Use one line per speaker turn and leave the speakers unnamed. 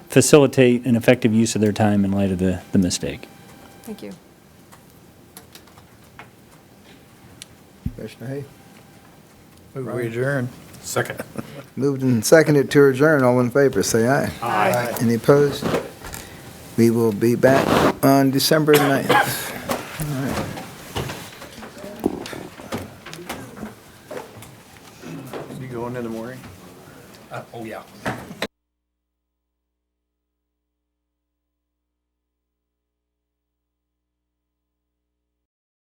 facilitate an effective use of their time in light of the, the mistake.
Thank you.
Commissioner Hay.
Move
Right.
we adjourn.
Second.
Moved and seconded to adjourn. All in favor, say aye. Aye. Any opposed? We will be back on December 9th.
You going in the morning?
Oh, yeah.